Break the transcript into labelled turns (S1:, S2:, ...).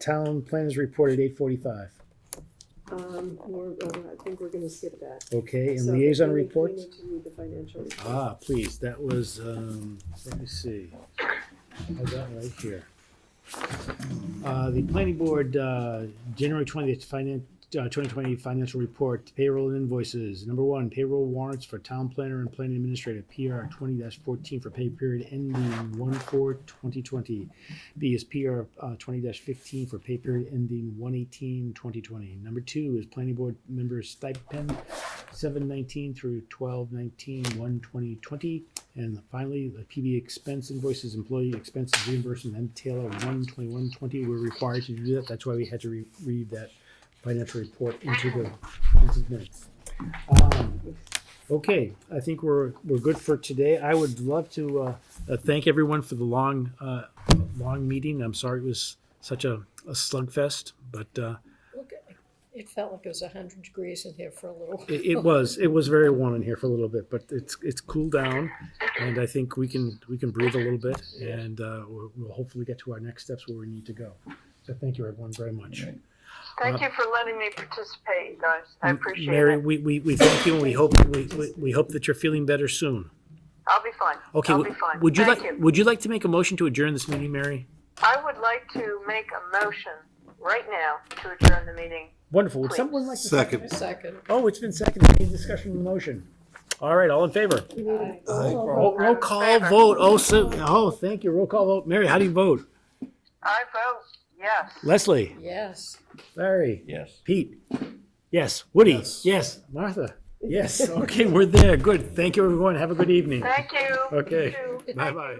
S1: Town planners report at eight forty-five,
S2: Um, we're, uh, I think we're gonna skip that.
S1: okay, and
S2: So
S1: liaison
S2: we need- we
S1: reports?
S2: need to read the financial report.
S1: Ah, please, that was, um, let me see. I got it right here. Uh, the planning board, uh, January twentieth, finan- uh, twenty twenty financial report, payroll and invoices. Number one, payroll warrants for town planner and planning administrator, PR twenty fourteen for pay period ending one four twenty twenty. B is PR, uh, twenty fifteen for pay period ending one eighteen twenty twenty. Number two is planning board member stipend seven nineteen through twelve nineteen, one twenty twenty. And finally, the PB expense invoices, employee expenses reimbursement, and Taylor one twenty-one twenty, we're required to do that, that's why we had to re- read that financial report into the, into the minutes. Um, Okay, I think we're, we're good for today, I would love to, uh, uh, thank everyone for the long, uh, long meeting, I'm sorry it was such a, a slugfest, but, uh,
S3: Look, it felt like it was a hundred degrees in here for a little.
S1: It, it was. It was very warm in here for a little bit, but it's it's cooled down, and I think we can we can breathe a little bit, and uh, we'll, we'll hopefully get to our next steps where we need to go. So thank you everyone very much.
S4: Thank you for letting me participate, you guys. I appreciate
S1: Uh, Mary,
S4: it.
S1: we, we, we thank you, and we hope we, we, we hope that you're feeling better soon.
S4: I'll be fine.
S1: Okay.
S4: I'll be
S1: w-
S4: fine.
S1: Would you
S4: Thank
S1: like Would you like to make a motion to adjourn this meeting, Mary?
S4: I would like to make a motion right now to adjourn the meeting.
S1: Wonderful. Would
S4: Please.
S1: someone like to
S5: Second.
S3: Second.
S1: Oh, it's been seconded. Any discussion on the motion? All right. All in favor? Roll, roll call
S4: Favor.
S1: vote. Oh, so, oh, thank you. Roll call vote. Mary, how do you vote?
S4: I vote yes.
S1: Leslie.
S3: Yes.
S1: Larry.
S5: Yes.
S1: Pete? Yes. Woody?
S5: Yes.
S1: Yes. Martha? Yes. Okay, we're there. Good. Thank you, everyone. Have a good evening.
S4: Thank you.
S1: Okay.
S4: You too.
S1: Bye-bye.